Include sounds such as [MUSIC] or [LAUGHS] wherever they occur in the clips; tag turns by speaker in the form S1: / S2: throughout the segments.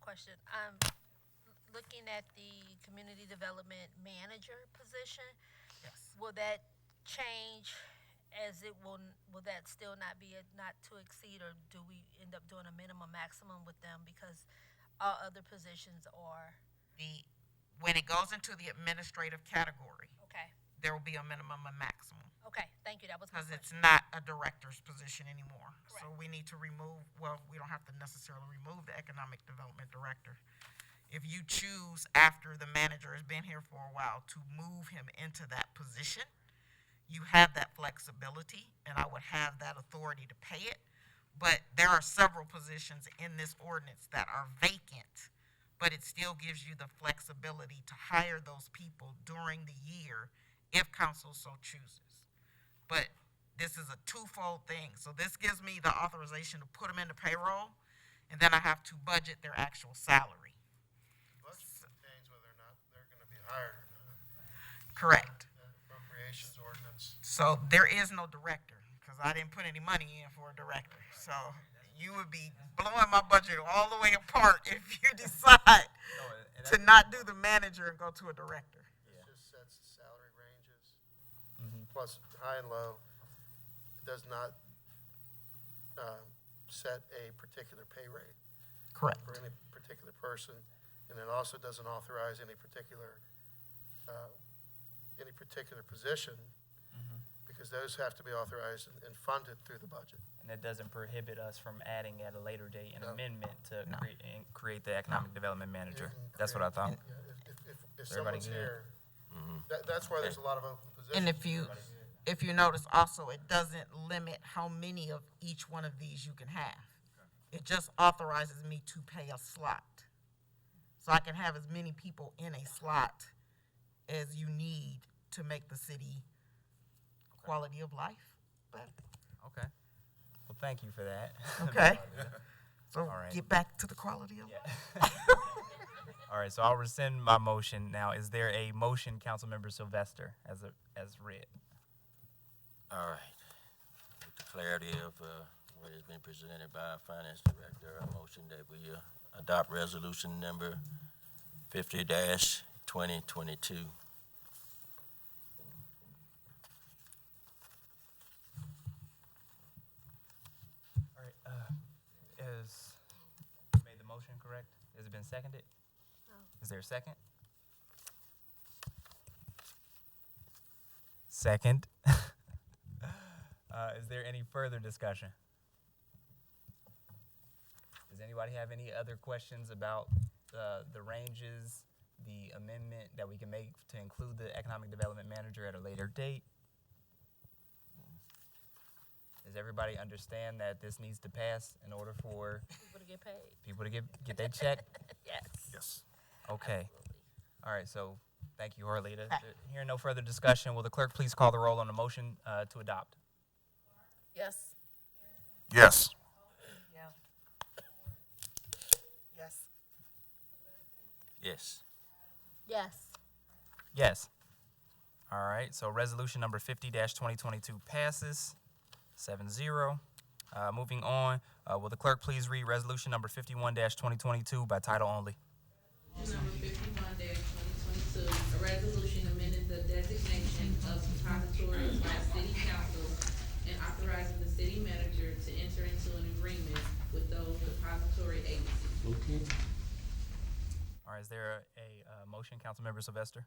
S1: question. I'm looking at the community development manager position.
S2: Yes.
S1: Will that change as it will, will that still not be a not to exceed or do we end up doing a minimum maximum with them because all other positions are?
S2: The, when it goes into the administrative category,
S1: Okay,
S2: there will be a minimum and maximum.
S1: okay, thank you, that was my
S2: Because it's
S1: question.
S2: not a director's position anymore. So
S1: Correct.
S2: we need to remove, well, we don't have to necessarily remove the economic development director. If you choose, after the manager has been here for a while, to move him into that position, you have that flexibility, and I would have that authority to pay it. But there are several positions in this ordinance that are vacant, but it still gives you the flexibility to hire those people during the year if council so chooses but this is a twofold thing. So this gives me the authorization to put them into payroll, and then I have to budget their actual salary.
S3: Budget contains whether or not they're gonna be hired or not.
S2: Correct.
S3: The Appropriations ordinance.
S2: So there is no director, because I didn't put any money in for a director. So you would be blowing my budget all the way apart [LAUGHS] if you decide to not do the manager and go to a director.
S3: It just sets the salary ranges, plus high and low. It does not, um, set a particular pay rate
S2: Correct.
S3: for any particular person. And it also doesn't authorize any particular, uh, any particular position, because those have to be authorized and- and funded through the budget.
S4: And that doesn't prohibit us from adding at a later date an
S3: No.
S4: amendment to
S2: No.
S4: create, and create the economic development manager.
S3: You can
S4: That's what I
S3: create-
S4: thought.
S3: Yeah, if- if- if- If
S4: Everybody
S3: someone's
S4: good? Mm-hmm.
S3: here, that, that's why there's a lot of open positions.
S2: And if you, if you notice also, it doesn't limit how many of each one of these you can have. It just authorizes me to pay a slot. So I can have as many people in a slot as you need to make the city quality of life better.
S4: Okay. Well, thank you for that.
S2: Okay? So
S4: right.
S2: get back to the quality of life.
S4: [LAUGHS] All right, so I'll rescind my motion now. Is there a motion, Councilmember Sylvester, as a, as read?
S5: All right. With the clarity of uh, what has been presented by our finance director, a motion that we uh, adopt resolution number fifty twenty twenty-two.
S4: All right, uh, is, made the motion correct? Has it been seconded? Is there a second? Second. [LAUGHS] Uh, is there any further discussion? Does anybody have any other questions about, uh, the ranges, the amendment that we can make to include the economic development manager at a later date? Does everybody understand that this needs to pass in order for
S1: People to get paid,
S4: people to get, get their check?
S1: yes.
S3: Yes.
S4: Okay. All right, so thank you, Arlita. There- Hearing no further discussion, will the clerk please call the roll on the motion uh, to adopt?
S1: Yes.
S5: Yes.
S2: Yes.
S5: Yes.
S1: Yes.
S4: Yes. All right, so resolution number fifty twenty twenty-two passes seven zero. Uh, moving on, uh, will the clerk please read resolution number fifty-one twenty twenty-two by title only?
S6: Number fifty-one twenty twenty-two, a resolution amending the designation of depositories by city council and authorizing the city manager to enter into an agreement with those depository agencies.
S4: All right, is there a, uh motion, Councilmember Sylvester?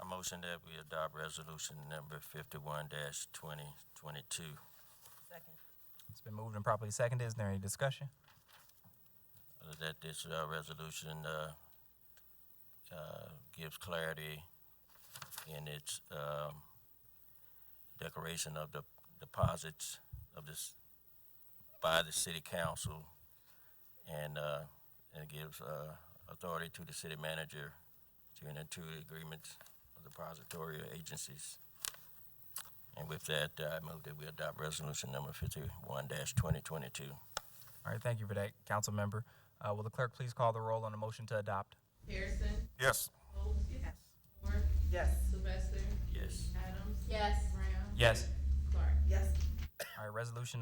S5: A motion that we adopt resolution number fifty-one twenty twenty-two.
S4: It's been moved and properly seconded. Is there any discussion?
S5: That this uh, resolution uh, uh, gives clarity in its um, declaration of the deposits of this, by the city council, and uh, and gives uh, authority to the city manager to enter into agreements of depository agencies. And with that, I move that we adopt resolution number fifty-one twenty twenty-two.
S4: All right, thank you for that, Councilmember. Uh, will the clerk please call the roll on the motion to adopt?
S6: Harrison?
S5: Yes.
S6: Folds? Yes. Moore?
S2: Yes.
S6: Sylvester?
S5: Yes.
S6: Adams?
S1: Yes.
S6: Brown?
S4: Yes.
S6: Clark?
S4: All right, resolution